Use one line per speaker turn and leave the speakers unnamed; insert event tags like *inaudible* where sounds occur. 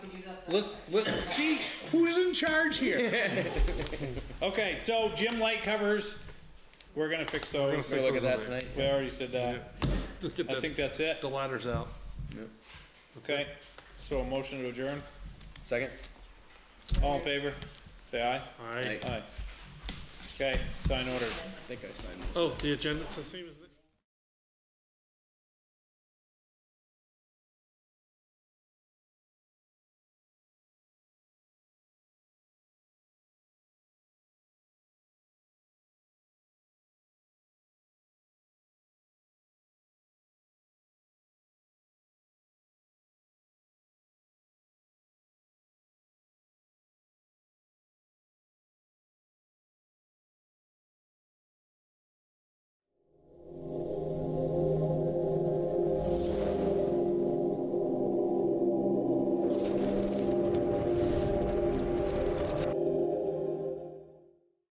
Let's let's see who's in charge
*laughs*
here.
Okay, so gym light covers, we're gonna fix those.
We'll look at that tonight.
We already said that.
Look at
I
the,
think that's it.
the ladders out.
Okay, so a motion to adjourn.
Second.
All in favor? Say aye.
All right.
Aye.
Aye. Okay, sign order.
I think I signed.
Oh, the agenda's the same as.